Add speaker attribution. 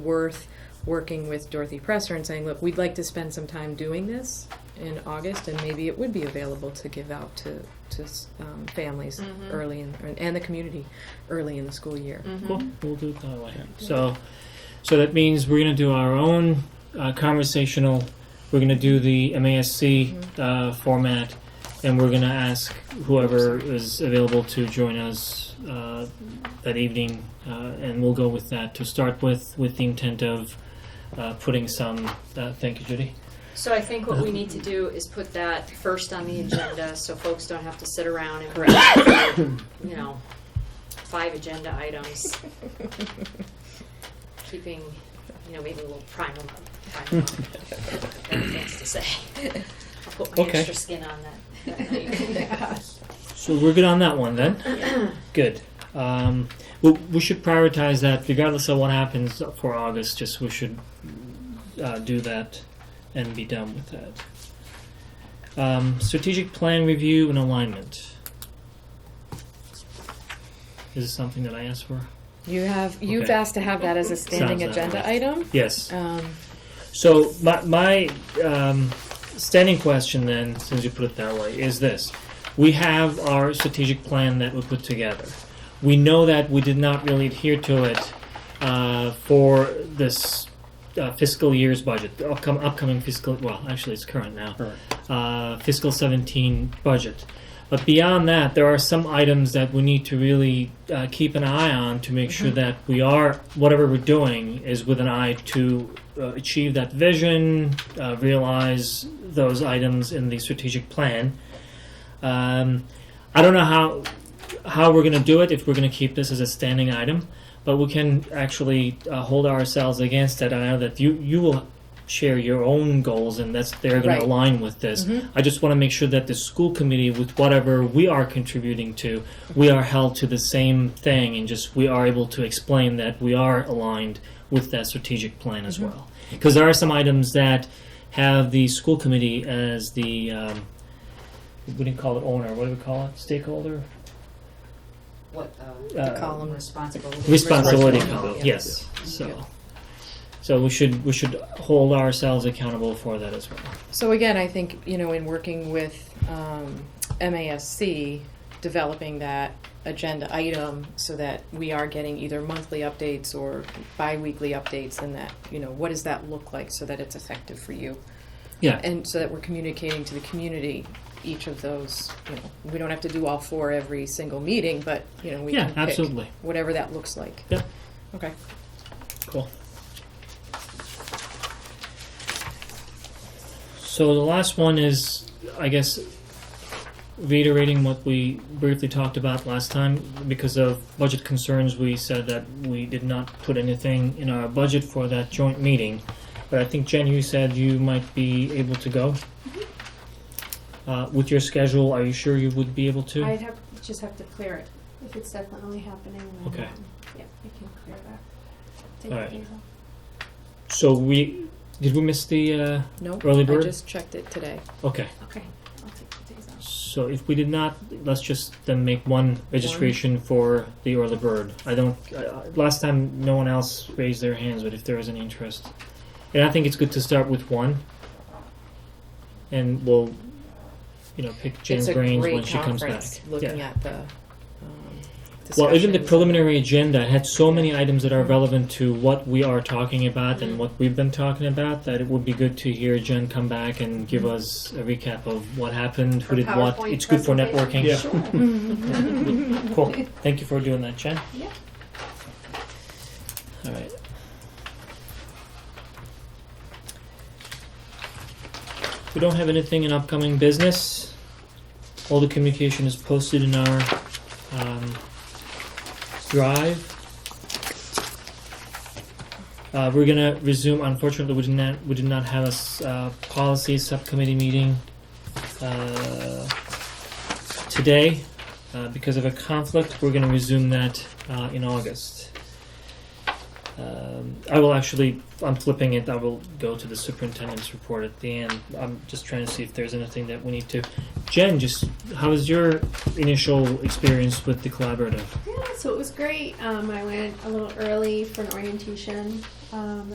Speaker 1: worth working with Dorothy Presser and saying, look, we'd like to spend some time doing this in August, and maybe it would be available to give out to, to um, families
Speaker 2: Mhm.
Speaker 1: early in, and the community early in the school year.
Speaker 2: Mhm.
Speaker 3: Cool. We'll do it that way. So, so that means we're gonna do our own uh, conversational. We're gonna do the MASC uh, format, and we're gonna ask whoever is available to join us uh, that evening, uh, and we'll go with that to start with, with the intent of uh, putting some. Uh, thank you, Judy.
Speaker 2: So I think what we need to do is put that first on the agenda, so folks don't have to sit around and, you know, five agenda items. Keeping, you know, maybe we'll prime them up, prime them up. Got Things to say. I'll put my
Speaker 3: Okay.
Speaker 2: extra skin on that, that night.
Speaker 3: So we're good on that one then. Good. Um, we, we should prioritize that regardless of what happens for August. Just we should uh, do that and be done with that. Um, strategic plan review and alignment. Is this something that I asked for?
Speaker 1: You have, you've
Speaker 3: Okay.
Speaker 1: asked to have that as a standing
Speaker 3: Sounds that
Speaker 1: agenda
Speaker 3: way.
Speaker 1: item.
Speaker 3: Yes.
Speaker 1: Um,
Speaker 3: So my my um, standing question then, since you put it that way, is this: We have our strategic plan that we put together. We know that we did not really adhere to it uh, for this uh, fiscal year's budget, the upcom- upcoming fiscal. Well, actually, it's current now. Uh, fiscal 17 budget. But beyond that, there are some items that we need to really uh, keep an eye on to make sure that we are, whatever we're doing, is with an eye to uh, achieve that vision, uh, realize those items in the strategic plan. Um, I don't know how how we're going to do it if we're going to keep this as a standing item, but we can actually uh, hold ourselves against that. I know that you you will share your own goals, and that's they're going
Speaker 1: Right.
Speaker 3: to align with this. I just want to make sure that the school committee, with whatever we are contributing to, we are held to the same thing, and just we are able to explain that we are aligned with that strategic plan as well. Because there are some items that have the school committee as the um, we didn't call it owner. What do we call it? Stakeholder.
Speaker 2: What, uh,
Speaker 3: Uh,
Speaker 1: column.
Speaker 2: responsibility?
Speaker 3: responsibility column.
Speaker 2: Responsibility.
Speaker 3: Yes. So, so we should we should hold ourselves accountable for that as well.
Speaker 1: So again, I think, you know, in working with um, MASC, developing that agenda item so that we are getting either monthly updates or bi-weekly updates and that, you know, what does that look like so that it's effective for you?
Speaker 3: Yeah.
Speaker 1: And so that we're communicating to the community each of those, you know, we don't have to do all four every single meeting, but, you know, we
Speaker 3: yeah.
Speaker 1: can pick
Speaker 3: Absolutely.
Speaker 1: whatever that looks like.
Speaker 3: Yeah.
Speaker 1: Okay.
Speaker 3: Cool. So the last one is, I guess, reiterating what we briefly talked about last time. Because of budget concerns, we said that we did not put anything in our budget for that joint meeting. But I think Jen, you said you might be able to go. Uh, with your schedule, are you sure you would be able to?
Speaker 4: I'd have, just have to clear it. If it's definitely happening, then.
Speaker 3: Okay.
Speaker 4: um, Yeah, I can clear that. Take
Speaker 3: All
Speaker 4: the
Speaker 3: right.
Speaker 4: days off.
Speaker 3: so we did we miss the uh,
Speaker 1: No,
Speaker 3: Early
Speaker 1: I
Speaker 3: bird?
Speaker 1: just checked it today.
Speaker 3: okay.
Speaker 4: Okay, I'll take the days off.
Speaker 3: So if we did not, let's just then make one registration for the early bird. I don't. I- I- Last time, no one else raised their hands, but if there is any interest, and I think it's good to start with one, and we'll, you know, pick Jen's
Speaker 1: it's a
Speaker 3: brains
Speaker 1: great
Speaker 3: when she comes back.
Speaker 1: conference looking
Speaker 3: Yeah.
Speaker 1: at the um,
Speaker 3: Well, even
Speaker 1: discussions.
Speaker 3: the
Speaker 1: Mm-hmm.
Speaker 3: preliminary agenda had so many items that are relevant to what we are talking about and what we've been talking about that it would be good to hear Jen come back and give
Speaker 1: Mm-hmm.
Speaker 3: us a recap of what happened, who
Speaker 2: Or
Speaker 3: did what.
Speaker 2: PowerPoint
Speaker 3: It's good for
Speaker 2: presentation.
Speaker 3: networking.
Speaker 4: Sure.
Speaker 3: Cool. Thank you for doing that, Jen.
Speaker 4: Yeah.
Speaker 3: All right. We don't have anything in upcoming business. All the communication is posted in our um, drive. Uh, we're gonna resume. Unfortunately, we did not we did not have a s- uh, policy subcommittee meeting uh, today uh, because of a conflict. We're going to resume that uh, in August. uh, Um, I will actually, I'm flipping it, I will go to the superintendent's report at the end. I'm just trying to see if there's anything that we need to. Jen, just how was your initial experience with the collaborative?
Speaker 2: Yeah, so it was great. Um, I went a little early for an orientation. Um,